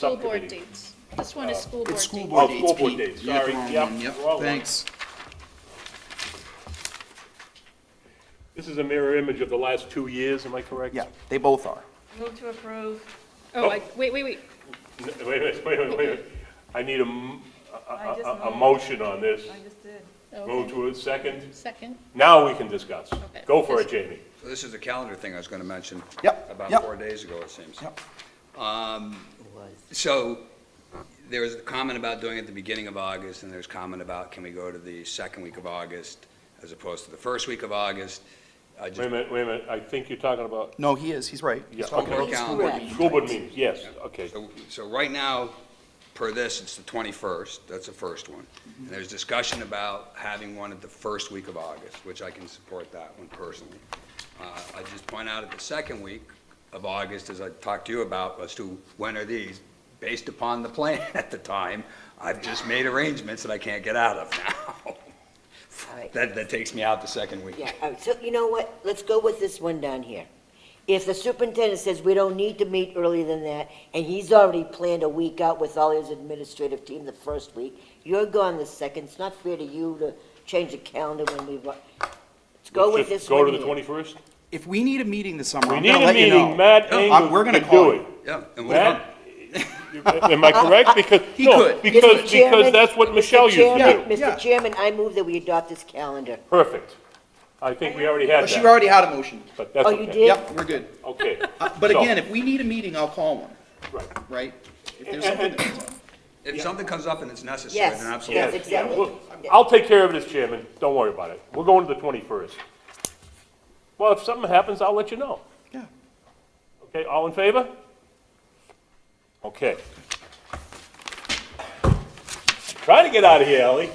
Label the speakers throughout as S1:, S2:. S1: School board Subcommittee. dates. This one is school board
S2: Uh, It's
S1: dates.
S2: school
S1: All
S2: board
S1: right,
S2: dates,
S1: all right,
S2: Pete. board
S1: dates,
S2: You're
S1: sorry.
S2: at the
S1: Yep,
S2: wrong one,
S1: wrong one.
S2: Thanks.
S1: This is a mirror image of the last two years, am I correct?
S2: Yeah, they both are.
S3: Move to approve.
S4: Oh, I, wait, wait, wait.
S1: N- Wait, a minute, wait, a minute, wait, a minute. I need a, m- a-
S3: I just
S1: a- a
S3: moved.
S1: motion on this.
S3: I just did.
S1: Move Move to a second.
S4: Second.
S1: Now we can discuss.
S4: Okay.
S1: Go for it, Jamie.
S5: This is the calendar thing I was going to mention.
S2: Yep, yep.
S5: About four days ago, it seems.
S2: Yep.
S5: Um, So there was a comment about doing it at the beginning of August, and there's comment about can we go to the second week of August as opposed to the first week of August? I
S1: Wait a
S5: just,
S1: minute, wait a minute, I think you're talking about,
S2: No, he is, he's right.
S1: Yeah,
S2: He's talking
S5: okay.
S2: about the school
S5: Calendar.
S2: board meeting
S1: school board
S2: dates.
S1: meetings, yes, okay.
S5: so- so right now, per this, it's the 21st, that's the first one. And there's discussion about having one at the first week of August, which I can support that one personally. Uh, I just point out at the second week of August, as I talked to you about, as to when are these, based upon the plan at the time, I've just made arrangements that I can't get out of now.
S6: right.
S5: That, that takes me out the second week.
S6: Yeah, all right, so you know what, let's go with this one down here. If the superintendent says we don't need to meet earlier than that, and he's already planned a week out with all his administrative team the first week, you're gone the second, it's not fair to you to change the calendar when we, wa- let's go with
S1: Just
S6: this
S1: Go
S6: one
S1: to the
S6: here.
S1: 21st?
S2: If we need a meeting this summer,
S1: We
S2: I'm
S1: need
S2: gonna
S1: a
S2: let you know.
S1: meeting, Matt
S2: No,
S1: Engel
S2: I'm- We're gonna
S1: could
S2: call
S1: do
S2: you.
S1: it.
S5: Yeah. and we'll-
S1: Matt, you- am I correct? Because,
S2: He
S1: no,
S2: could.
S1: because,
S6: Mr.
S1: because
S6: Chairman,
S1: that's what
S6: Mr.
S1: Michelle used to
S6: Chairman,
S1: do.
S2: Yeah.
S6: Mr. Chairman, I move that we adopt this calendar.
S1: Perfect. I think we already had
S2: But she
S1: that,
S2: already had a motion.
S1: but that's
S6: Oh, you
S1: okay.
S6: did?
S2: Yep, we're good.
S1: Okay.
S2: Uh, But
S1: So,
S2: again, if we need a meeting, I'll call one,
S1: right.
S2: right? If there's something that comes up.
S5: If something comes up and it's necessary,
S6: Yes,
S5: then absolutely.
S6: yes,
S1: Yes, yeah,
S6: exactly.
S1: we'll- I'll take care of this, Chairman, don't worry about it. We're going to the 21st. Well, if something happens, I'll let you know.
S2: Yeah.
S1: Okay, all in favor? Okay. Trying to get out of here, Ellie.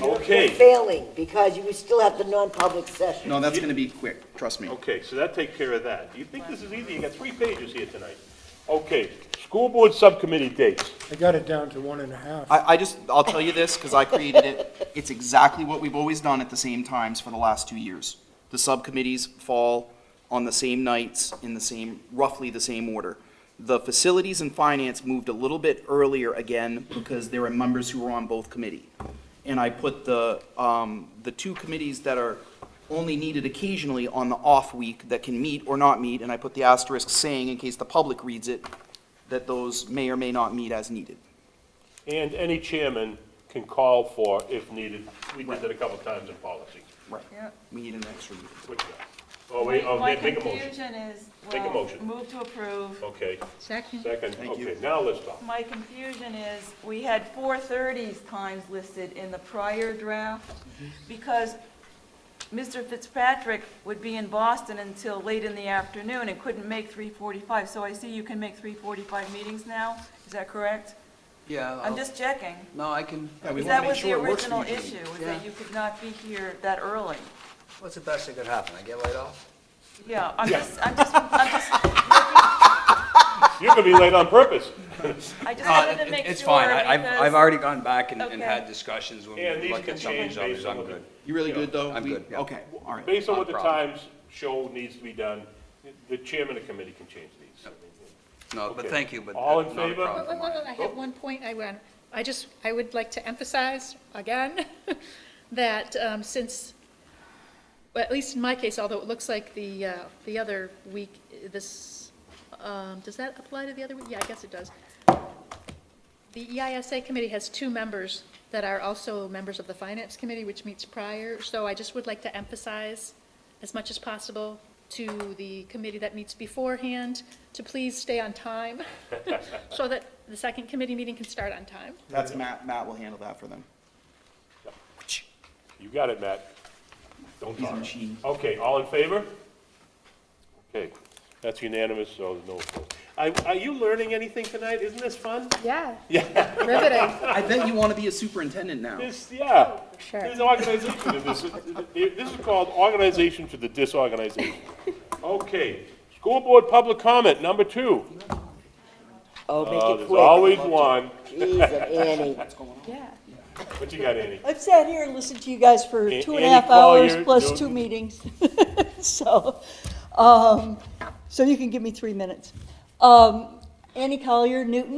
S1: Okay,
S6: Failing, because you still have the non-public session.
S2: No, that's gonna be quick, trust me.
S1: okay, so that takes care of that. Do you think this is easy? You got three pages here tonight. Okay, school board subcommittee dates.
S7: I got it down to one and a half.
S2: I, I just, I'll tell you this, because I created it. It's exactly what we've always done at the same times for the last two years. The subcommittees fall on the same nights in the same, roughly the same order. The facilities and finance moved a little bit earlier again because there were members who were on both committee. And I put the, um, the two committees that are only needed occasionally on the off week that can meet or not meet, and I put the asterisk saying, in case the public reads it, that those may or may not meet as needed.
S1: And any chairman can call for if needed. We did that a couple times in policy.
S2: Right.
S3: Yeah.
S2: We need an extra meeting.
S1: Which one? Oh, wait, oh,
S3: My
S1: make make a motion.
S3: confusion is,
S1: Make a
S3: well,
S1: motion. Oh.
S3: move to approve.
S1: Okay,
S4: Second.
S1: second,
S2: Thank you.
S1: okay, now let's talk.
S3: My confusion is, we had 4:30 times listed in the prior draft, because Mr. Fitzpatrick would be in Boston until late in the afternoon and couldn't make 3:45. So I see you can make 3:45 meetings now, is that correct?
S5: Yeah.
S3: I'm just checking.
S5: No, I can.
S2: we
S3: Because
S2: wanna
S3: that
S2: make
S3: was the
S2: sure it works for
S3: original
S2: you.
S3: issue, was
S5: Yeah.
S3: that you could not be here that early.
S5: What's the best that could happen? I get laid off?
S3: Yeah, I'm just, I'm just, I'm just,
S1: You're gonna be late on purpose.
S3: I just wanted to make sure.
S5: Uh, It's fine. I- I've,
S3: because-
S5: I've already gone back and, and
S3: Okay.
S5: had discussions when
S1: And
S5: we
S1: these
S5: looked
S1: can
S5: at some of
S1: change
S5: these others.
S1: based on
S5: I'm
S1: what the-
S5: good.
S2: You really good, though?
S5: I'm
S2: We-
S5: good, yeah.
S2: Okay, all right.
S1: Based on what the
S5: No problem.
S1: times show needs to be done, the chairman of the committee can change these.
S5: No, but
S1: Okay.
S5: thank you, but.
S1: All in
S5: not a
S1: favor?
S5: problem
S4: Wait, wait,
S5: for mine.
S4: wait, I have one point I want, I just, I would like to emphasize again that um, since, well, at least in my case, although it looks like the, uh, the other week, this, um, does that apply to the other week? Yeah, I guess it does. The E EISA committee has two members that are also members of the finance committee, which meets prior. So I just would like to emphasize as much as possible to the committee that meets beforehand to please stay on time so that the second committee meeting can start on time.
S2: That's Matt, Matt will handle that for them.
S1: You got it, Matt. Don't
S2: He's a
S1: talk.
S2: machine.
S1: Okay, all in favor? Okay, that's unanimous, so no. vote. Are, are you learning anything tonight? Isn't this fun?
S4: Yeah. Yeah. Riveting.
S2: I bet you want to be a superintendent now.
S1: This, yeah.
S4: Sure.
S1: There's organization in this. This is called organization to the disorganization. Okay, school board public comment, number two.
S6: Oh, make
S1: Uh,
S6: it
S1: There's
S6: quick.
S1: always one.
S6: Jeez, and Annie.
S8: Yeah,
S1: What you got, Annie?
S8: I've sat here and listened to you guys for
S1: A-
S8: two and a
S1: Annie
S8: half hours
S1: Collier,
S8: plus two
S1: Newton.
S8: meetings. So, um, so you can give me three minutes. Um, Annie Collier, Newton.